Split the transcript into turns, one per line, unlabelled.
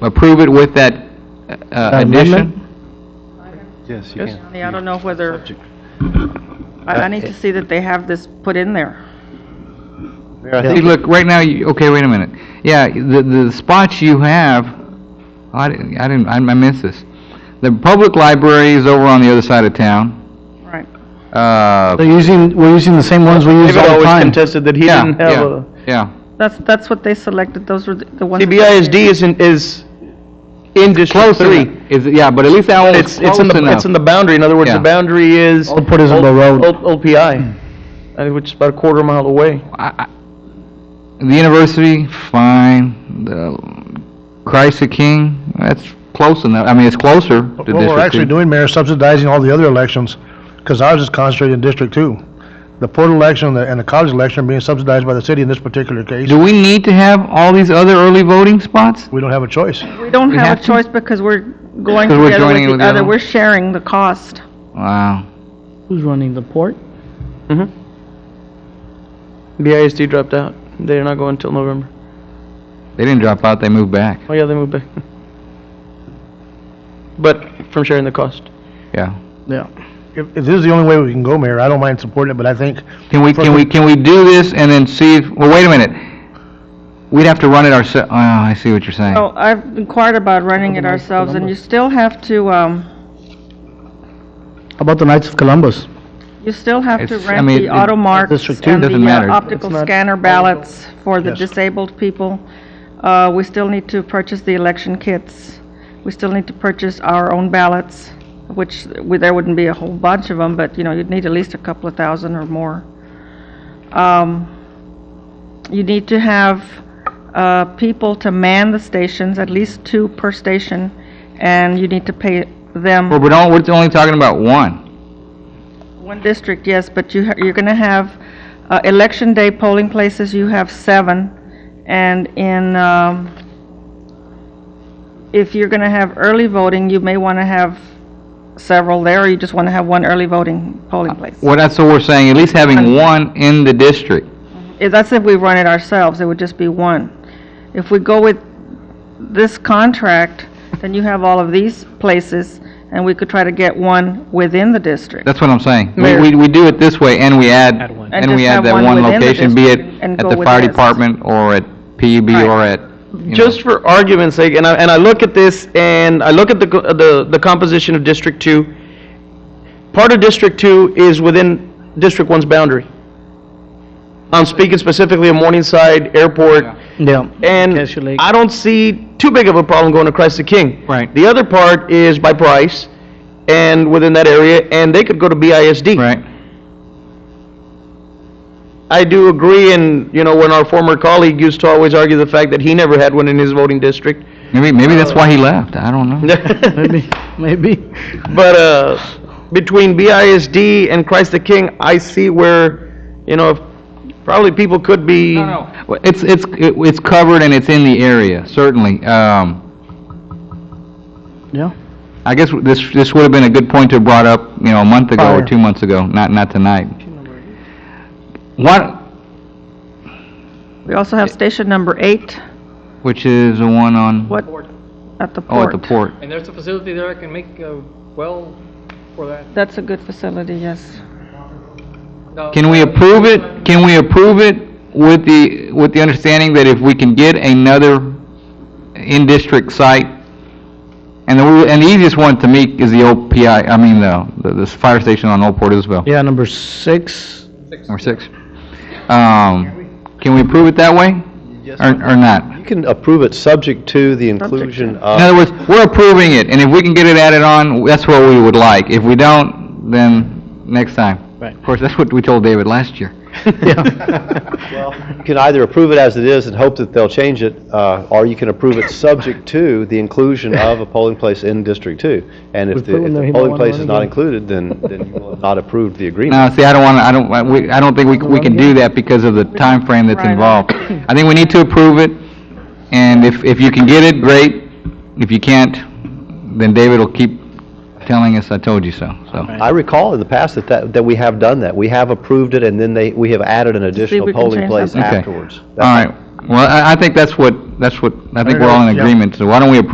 approve it with that uh,
Amendment?
addition?
Yes, you
Yes.
can.
Yeah, I don't know whether,
Subject-
I, I need to see that they have this put in there.
Mayor, I
See,
think,
look, right now, you, okay, wait a minute. Yeah, the, the spots you have, I didn't, I didn't, I I missed this. The public library is over on the other side of town.
Right.
Uh,
They're using, we're using the same ones we use
David
all the
always
time.
contested that he
yeah,
didn't have
yeah,
a,
yeah.
That's, that's what they selected, those were the the ones. that they
CBISD
did.
is in, is in District
Close enough.
Three.
Is, yeah, but at least that one was
It's, it's in
close Oh,
the,
enough.
it's in the boundary, in other words,
Yeah.
the boundary is.
Old Port Isabel
Old-
Road.
Old, Old PI, uh, which is about a quarter mile away.
I- I- The university, fine. The Christ the King, that's close enough. I mean, it's closer to District
What we're actually
two.
doing, Mayor, is subsidizing all the other elections, because ours is concentrated in District Two. The port election and the- and the college election are being subsidized by the city in this particular case.
Do we need to have all these other early voting spots?
We don't have a choice.
We don't
We
have
have
a
to?
choice because we're going
'Cause we're
together
joining
with
with
the
the other
other,
one.
we're sharing the cost.
Wow.
Who's running the port?
BISD dropped out. They're not going until November.
They didn't drop out, they moved back.
Oh, yeah, they moved back. But from sharing the cost.
Yeah.
Yeah.
If, if this is the only way we can go, Mayor, I don't mind supporting it, but I think
Can we, can we, can we do this and then see if, well, wait a minute. We'd have to run it ourselves. oh, I see what you're saying.
So I've inquired about running it ourselves and you still have to, um,
How about the Knights of Columbus?
you still have to
It's- I
rent
mean,
the
it-
auto marks
District two
and
doesn't
the
matter.
uh, optical
It's not-
scanner ballots for the
Yes.
disabled people. Uh, we still need to purchase the election kits. We still need to purchase our own ballots, which we- there wouldn't be a whole bunch of them, but you know, you'd need at least a couple of thousand or more. Um, you need to have uh, people to man the stations, at least two per station, and you need to pay them.
Well, but don't, we're only talking about one.
One district, yes, but you, ha- you're going to have, uh, election day polling places, you have seven. And in, um, if you're going to have early voting, you may want to have several there, or you just want to have one early voting polling place.
Well, that's what we're saying, at least having one in the district.
If- That's if we run it ourselves, it would just be one. If we go with this contract, then you have all of these places, and we could try to get one within the district.
That's what I'm saying. We,
Mayor.
we, we do it this way, and we add, and
And
we
just
add
have
that
one
one
within the
location, be it
district and
at
go
the
with
fire
this.
department, or at PUB,
Right.
or at, you know.
Just for argument's sake, and I, and I look at this, and I look at the, co- the, the composition of District Two. Part of District Two is within District One's boundary. I'm speaking specifically of Morningside Airport,
Yeah.
and
Cashew Lake.
I don't see too big of a problem going to Christ the King.
Right.
The other part is by price, and within that area, and they could go to BISD.
Right.
I do agree, and, you know, when our former colleague used to always argue the fact that he never had one in his voting district.
Maybe, maybe that's why he left, I don't know.
Maybe, maybe.
But uh, between BISD and Christ the King, I see where, you know, probably people could be.
Well, It's, it's, it- it's covered and it's in the area, certainly. Um,
Yeah.
I guess this, this would have been a good point to have brought up, you know, a month ago or
Prior.
two months ago, not, not tonight. What,
We also have station number eight,
which is the one on,
what, at the
oh,
port.
at the port.
And there's a facility there that can make uh, well for that.
That's a good facility, yes.
No,
Can we approve it, can we approve it with the, with the understanding that if we can get another in-district site, and the, and the easiest one to meet is the OPI, I mean, the, the fire station on Old Port Isabel,
Yeah, number six.
number six. Um, can we approve it that way? Or, or not?
you can approve it subject to the inclusion
In
of,
other words, we're approving it, and if we can get it added on, that's what we would like. If we don't, then next time.
Right.
Of course, that's what we told David last year.
you can either approve it as it is and hope that they'll change it, uh, or you can approve it subject to the inclusion of a polling place in District Two. And if
put
the
one
if
there,
the
he might
polling
wanna
place
run
is not
again.
included, then then you will have not approved the agreement.
No, see, I don't want to, I don't, I- we, I don't think we, c- we can do that because of the time frame that's
Right.
involved. I think we need to approve it, and if, if you can get it, great. If you can't, then David will keep telling us, I told you so, so.
I recall in the past that, that, that we have done that. We have approved it, and then they, we have added an additional
we can
polling
change
place
something.
Okay.
afterwards.
All right, well, I, I think that's what, that's what, I think we're all in
Yeah.
agreement, so why don't we approve